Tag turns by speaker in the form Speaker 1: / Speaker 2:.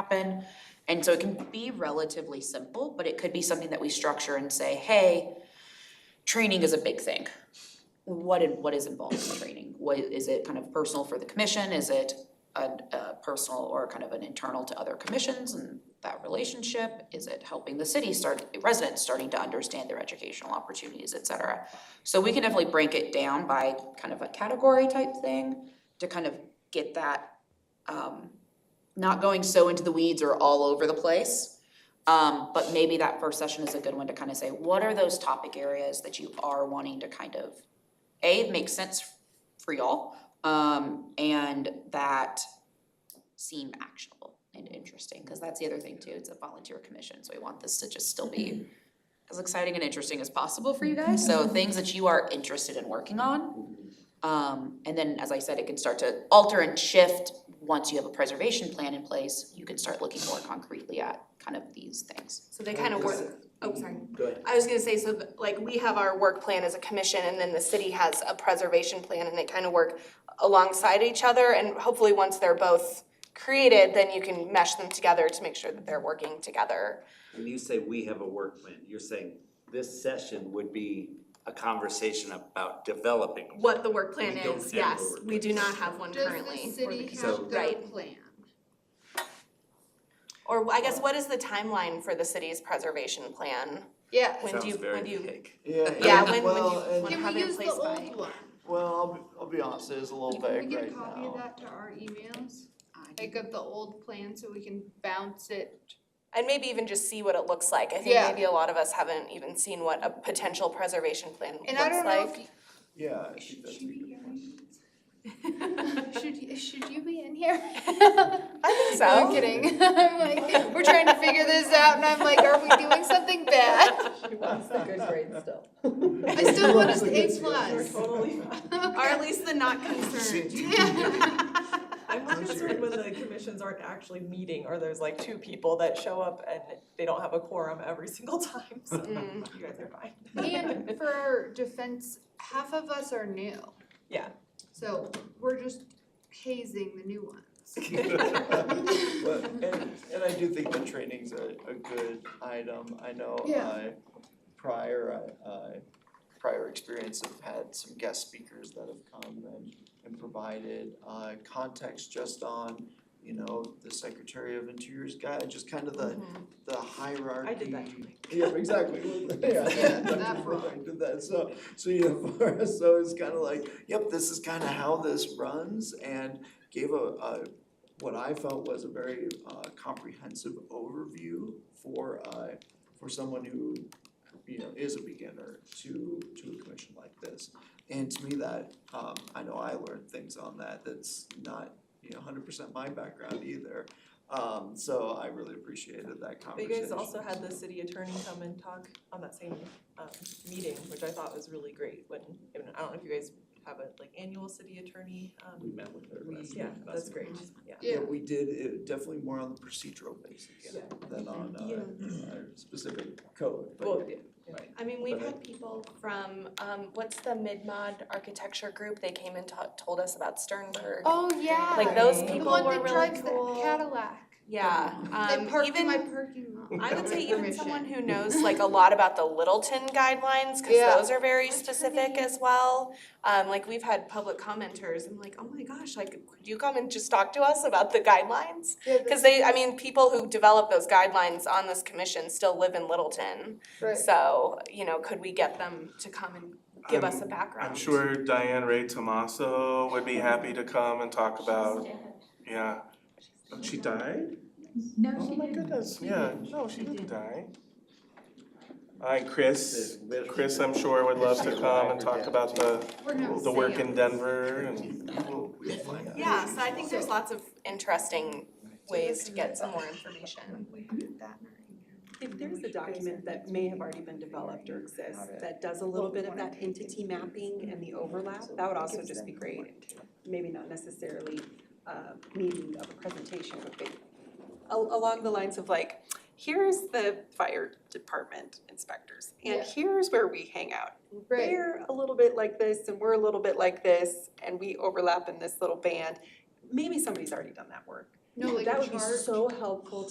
Speaker 1: happen. And so it can be relatively simple, but it could be something that we structure and say, hey, training is a big thing. What in what is involved in training? What, is it kind of personal for the commission? Is it a, a personal or kind of an internal to other commissions and that relationship? Is it helping the city start, residents starting to understand their educational opportunities, et cetera? So we can definitely break it down by kind of a category type thing to kind of get that um not going so into the weeds or all over the place. Um, but maybe that first session is a good one to kind of say, what are those topic areas that you are wanting to kind of, A, make sense for y'all, um, and that seem actionable and interesting, because that's the other thing too, it's a volunteer commission, so we want this to just still be as exciting and interesting as possible for you guys, so things that you are interested in working on. Um, and then, as I said, it can start to alter and shift. Once you have a preservation plan in place, you can start looking more concretely at kind of these things.
Speaker 2: So they kind of
Speaker 3: Because-
Speaker 2: work, oh, sorry.
Speaker 3: Go ahead.
Speaker 2: I was gonna say, so like we have our work plan as a commission and then the city has a preservation plan and they kind of work alongside each other and hopefully once they're both created, then you can mesh them together to make sure that they're working together.
Speaker 3: When you say we have a work plan, you're saying this session would be a conversation about developing.
Speaker 2: What the work plan
Speaker 3: We don't
Speaker 2: is,
Speaker 3: have a
Speaker 2: yes,
Speaker 3: work
Speaker 2: we do
Speaker 3: plan.
Speaker 2: not have one currently.
Speaker 4: Does the city
Speaker 3: So-
Speaker 4: have their
Speaker 2: Right.
Speaker 4: plan?
Speaker 2: Or I guess what is the timeline for the city's preservation plan?
Speaker 4: Yeah.
Speaker 2: When do you,
Speaker 3: Sounds very
Speaker 2: when do you,
Speaker 3: vague.
Speaker 5: Yeah,
Speaker 2: yeah,
Speaker 5: and-
Speaker 2: when, when do
Speaker 5: well,
Speaker 2: you
Speaker 5: and-
Speaker 2: wanna
Speaker 4: Can
Speaker 2: have
Speaker 4: we
Speaker 2: it in
Speaker 4: use the
Speaker 2: place by?
Speaker 4: old one?
Speaker 5: Well, I'll be, I'll be honest, it is a little
Speaker 4: Can we
Speaker 5: vague
Speaker 4: get a
Speaker 5: right
Speaker 4: copy of
Speaker 5: now.
Speaker 4: that to our emails? Like of the old plan so we can bounce it?
Speaker 2: And maybe even just see what it looks like. I think
Speaker 4: Yeah.
Speaker 2: maybe a lot of us haven't even seen what a potential preservation plan looks like.
Speaker 4: And I don't know if, you-
Speaker 5: Yeah, I think
Speaker 4: should
Speaker 5: that's a
Speaker 4: she be
Speaker 5: good point.
Speaker 4: here? Should, you- should you be in here?
Speaker 2: I think so.
Speaker 4: No, I'm kidding. I'm like, we're trying to figure this out and I'm like, are we doing something bad?
Speaker 6: She wants the good grade still.
Speaker 4: I still want us A plus.
Speaker 6: Totally.
Speaker 2: Or at least the not concerned.
Speaker 6: I'm more concerned when the commissions aren't actually meeting, or there's like two people that show up and they don't have a quorum every single time, so
Speaker 4: Mm-hmm.
Speaker 6: you guys are fine.
Speaker 4: And for our defense, half of us are new.
Speaker 6: Yeah.
Speaker 4: So we're just hazing the new ones.
Speaker 5: But, and, and I do think the training's a, a good item, I know
Speaker 4: Yeah.
Speaker 5: I, prior, I, I, prior experience have had some guest speakers that have come and, and provided, uh, context just on, you know, the Secretary of Interior's guide, just kind of
Speaker 2: Mm-hmm.
Speaker 5: the, the hierarchy.
Speaker 6: I did that. to Mike.
Speaker 5: Yeah, exactly. Yeah,
Speaker 4: Yeah,
Speaker 5: Dr.
Speaker 4: that
Speaker 5: Burbank
Speaker 4: frog.
Speaker 5: Did that, so, so you know, for us, so it's kind of like, yep, this is kind of how this runs and gave a, a, what I felt was a very uh, comprehensive overview for, uh, for someone who, you know, is a beginner to, to a commission like this. And to me that, um, I know I learned things on that, that's not, you know, hundred percent my background either. Um, so I really appreciated that
Speaker 6: But you
Speaker 5: conversation.
Speaker 6: guys also had the city attorney come and talk on that same, um, meeting, which I thought was really great, when, and I don't know if you guys have a, like, annual city attorney,
Speaker 3: We
Speaker 6: um,
Speaker 3: met with her last
Speaker 6: yeah,
Speaker 3: night.
Speaker 6: that's great, yeah.
Speaker 5: Yeah,
Speaker 4: Yeah.
Speaker 5: "Hmm, we did, it definitely more on the procedural basis
Speaker 6: Yeah.
Speaker 5: than on
Speaker 6: Yeah.
Speaker 5: uh our specific code,
Speaker 6: Well,
Speaker 5: but
Speaker 6: yeah,
Speaker 2: I mean, we've
Speaker 5: But I-
Speaker 2: had people from, um, what's the mid-mod architecture group? They came and ta- told us about Sternberg.
Speaker 4: Oh, yeah.
Speaker 2: Like those
Speaker 6: The
Speaker 4: The
Speaker 2: people
Speaker 4: one
Speaker 2: were
Speaker 4: that
Speaker 2: really
Speaker 4: drives the
Speaker 2: cool.
Speaker 4: Cadillac.
Speaker 2: Yeah,
Speaker 4: They
Speaker 2: um,
Speaker 4: parked in
Speaker 2: even,
Speaker 4: my parking lot.
Speaker 2: I would say
Speaker 4: without
Speaker 2: even
Speaker 4: permission.
Speaker 2: someone who knows like a lot about the Littleton guidelines, cause
Speaker 4: Yeah.
Speaker 2: those are very
Speaker 4: What's her
Speaker 2: specific
Speaker 4: name?
Speaker 2: as well. Um, like we've had public commenters, I'm like, oh my gosh, like, could you come and just talk to us about the guidelines?
Speaker 4: Yeah,
Speaker 2: Because they, I mean, people who develop those guidelines on this commission still live in Littleton.
Speaker 4: right.
Speaker 2: So, you know, could we get them to come and give us a
Speaker 7: I'm-
Speaker 2: background?
Speaker 7: I'm sure Diane Ray Tomaso would be happy to come and talk about, yeah. Oh, She died?
Speaker 8: No,
Speaker 7: Oh
Speaker 8: she
Speaker 7: my
Speaker 8: didn't.
Speaker 7: goodness, yeah, no, she didn't die. Hi, Chris.
Speaker 3: Live-
Speaker 7: Chris, I'm sure would love to come and talk about the,
Speaker 4: We're not
Speaker 7: the work in
Speaker 4: saying.
Speaker 7: Denver and,
Speaker 5: we'll we'll find out.
Speaker 2: Yeah, so I think there's lots of interesting ways to get some more information.
Speaker 9: If there's a document that may have already been developed or exists that does a little bit of that entity mapping and the overlap, that would also just be great. Maybe not necessarily a meaning of a presentation, but maybe al- along the lines of like, here's the fire department inspectors,
Speaker 4: Yeah.
Speaker 9: and here's where we hang out.
Speaker 4: Right.
Speaker 9: They're a little bit like this, and we're a little bit like this, and we overlap in this little band. Maybe somebody's already done that work,
Speaker 4: No, like
Speaker 9: That would be
Speaker 4: charge.
Speaker 9: so helpful to